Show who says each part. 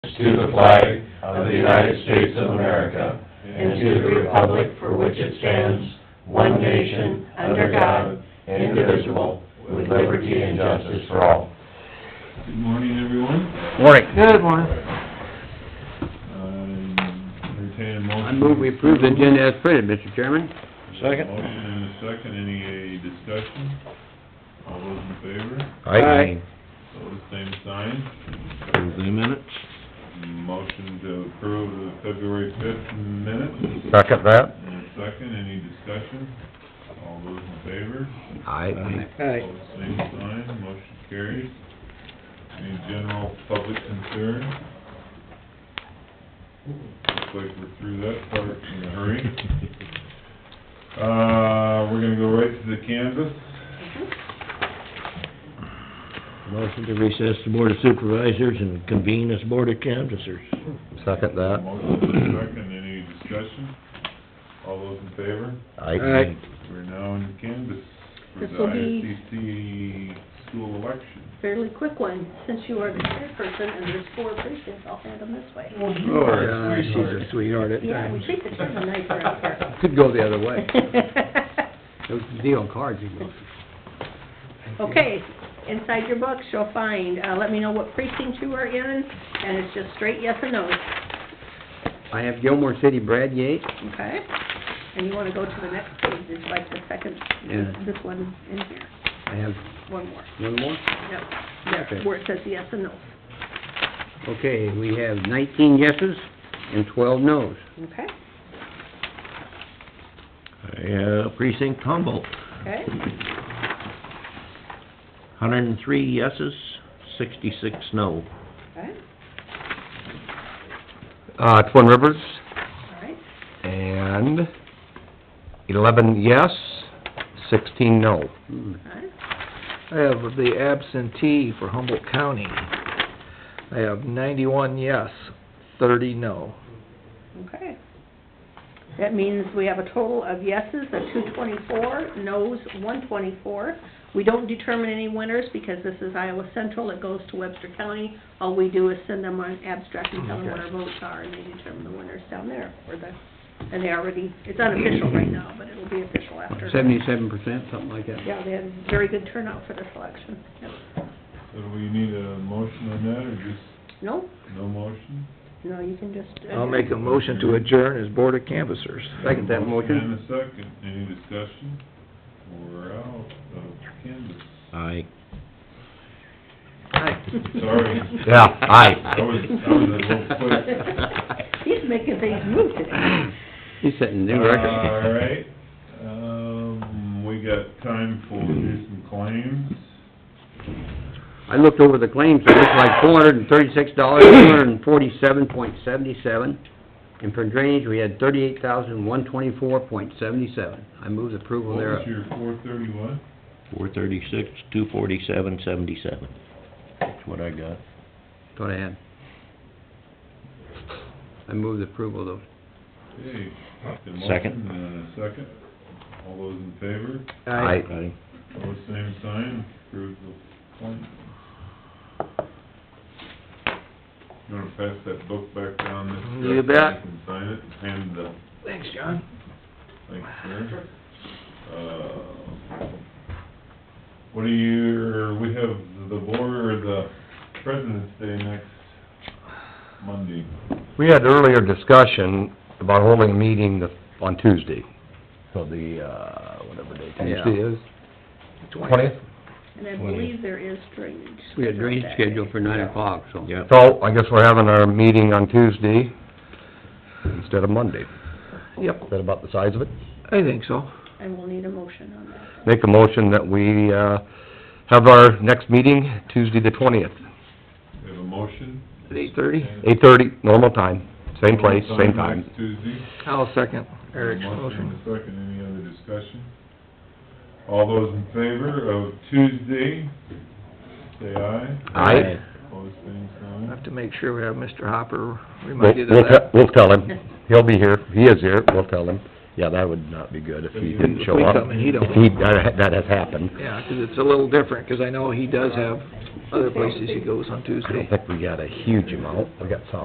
Speaker 1: to the flag of the United States of America and to the republic for which it stands, one nation, under God, indivisible, with liberty and justice for all.
Speaker 2: Good morning, everyone.
Speaker 3: Morning.
Speaker 4: Good morning.
Speaker 2: I Uh, entertain a motion.
Speaker 4: I move we approve the agenda as printed, Mr. Chairman.
Speaker 3: Second.
Speaker 2: Motion and a second, any uh, discussion? All those in favor,
Speaker 4: Aye.
Speaker 2: those same sign.
Speaker 3: Approve the minutes.
Speaker 2: Motion to approve the February fifth minutes,
Speaker 3: Second that.
Speaker 2: and a second, any discussion? All those in favor,
Speaker 3: Aye.
Speaker 4: Aye.
Speaker 2: those same sign, motion carries. Any general public concern? Looks like we're through that part in a hurry. Uh, we're gonna go right to the canvas.
Speaker 5: Mm-hmm.
Speaker 3: Motion to recess the Board of Supervisors and convene as Board of Canvassers. Second
Speaker 2: Motion and a second, any discussion? All those in favor?
Speaker 3: Aye.
Speaker 2: We're now in canvas for
Speaker 5: This
Speaker 2: the
Speaker 5: will be-
Speaker 2: ISDC school election.
Speaker 5: fairly quick one, since you are the chairperson and there's four precincts, I'll hand them this way.
Speaker 4: Oh, God, she's a sweetheart at
Speaker 5: Yeah, we
Speaker 4: times.
Speaker 5: treat the chairman nice around here.
Speaker 4: Could go the other way. Those deal cards, you know.
Speaker 5: Okay, inside your books, you'll find, uh, let me know what precinct you are in, and it's just straight yes or no,
Speaker 4: I have Gilmore City, Brad Yates.
Speaker 5: okay? And you wanna go to the next page, it's like the second,
Speaker 4: Yeah.
Speaker 5: this one in here,
Speaker 4: I have
Speaker 5: one more,
Speaker 4: one more.
Speaker 5: yep, there,
Speaker 4: Okay.
Speaker 5: where it says yes and no,
Speaker 4: Okay, we have nineteen yeses and twelve nos.
Speaker 5: okay?
Speaker 3: Yeah, precinct Humboldt,
Speaker 5: Okay,
Speaker 3: hundred and three yeses, sixty-six no.
Speaker 5: okay,
Speaker 6: uh, Twin Rivers,
Speaker 5: all right,
Speaker 6: and eleven yes, sixteen no.
Speaker 4: Hmm.
Speaker 5: all right.
Speaker 7: I have the absentee for Humboldt County. I have ninety-one yes, thirty no.
Speaker 5: Okay. That means we have a total of yeses of two twenty-four, nos one twenty-four. We don't determine any winners because this is Iowa Central, it goes to Webster County. All we do is send them an abstract and tell them what our votes are, and they determine the winners down there for the, and they already, it's unofficial right now, but it'll be official after.
Speaker 4: Seventy-seven percent, something like that.
Speaker 5: Yeah, they had very good turnout for this election. Yep.
Speaker 2: So do we need a motion on that, or just
Speaker 5: No,
Speaker 2: no motion?
Speaker 5: no, you can just. uh,
Speaker 7: I'll make a motion to adjourn as Board of Canvassers.
Speaker 4: Second that motion.
Speaker 2: And a second, any discussion? We're out of canvas.
Speaker 3: Aye.
Speaker 2: Sorry.
Speaker 6: Yeah,
Speaker 2: I
Speaker 6: aye.
Speaker 2: was, I was a little quick.
Speaker 5: He's making things move today.
Speaker 4: He's setting new records.
Speaker 2: All right, um, we got time for do some claims.
Speaker 4: I looked over the claims, it looks like four hundred and thirty-six dollars, two hundred and forty-seven point seventy-seven. And for drainage, we had thirty-eight thousand, one twenty-four point seventy-seven. I move the approval
Speaker 2: What was
Speaker 4: thereof.
Speaker 2: your four thirty-one?
Speaker 3: Four thirty-six, two forty-seven, seventy-seven. That's what I got.
Speaker 4: Go ahead. I move the approval of those.
Speaker 2: Okay. the motion
Speaker 3: Second.
Speaker 2: and a second. All those in favor,
Speaker 6: Aye.
Speaker 3: Aye.
Speaker 2: all the same sign, approve the claim. You wanna pass that book back down this
Speaker 7: You
Speaker 2: direction?
Speaker 7: bet.
Speaker 2: You can sign it and hand the,
Speaker 7: Thanks, John.
Speaker 2: thanks, sir. Uh, what are your, we have the board, or the President's Day next Monday.
Speaker 6: We had earlier discussion about holding a meeting the- on Tuesday, so the, uh, whatever day Tuesday is. Twentieth?
Speaker 5: And I believe there is drainage.
Speaker 4: We got drainage
Speaker 5: scheduled that day.
Speaker 4: scheduled for nine o'clock, so.
Speaker 3: Yeah.
Speaker 6: So, I guess we're having our meeting on Tuesday instead of Monday.
Speaker 7: Yep,
Speaker 6: Is that about the size of it?
Speaker 7: I think so.
Speaker 5: And we'll need a motion on that.
Speaker 6: Make a motion that we, uh, have our next meeting Tuesday the twentieth,
Speaker 2: We have a motion.
Speaker 7: At eight-thirty?
Speaker 6: eight-thirty, normal time, same place, same time.
Speaker 2: Next Tuesday.
Speaker 7: I'll second Eric's
Speaker 2: Motion
Speaker 7: motion.
Speaker 2: and a second, any other discussion? All those in favor of Tuesday, say aye.
Speaker 6: Aye.
Speaker 2: Opposed, same
Speaker 7: I
Speaker 2: sign.
Speaker 7: have to make sure we have Mr. Hopper
Speaker 6: We'll,
Speaker 7: reminded
Speaker 6: we'll,
Speaker 7: of
Speaker 6: te-
Speaker 7: that.
Speaker 6: we'll tell him, he'll be here, he is here, we'll tell him. Yeah, that would not be good if he didn't show up.
Speaker 7: If we come and he don't.
Speaker 6: He- that, that has happened.
Speaker 7: Yeah, 'cause it's a little different, 'cause I know he does have other places he goes on
Speaker 6: I
Speaker 7: Tuesday.
Speaker 6: don't think we got a huge amount, we got some.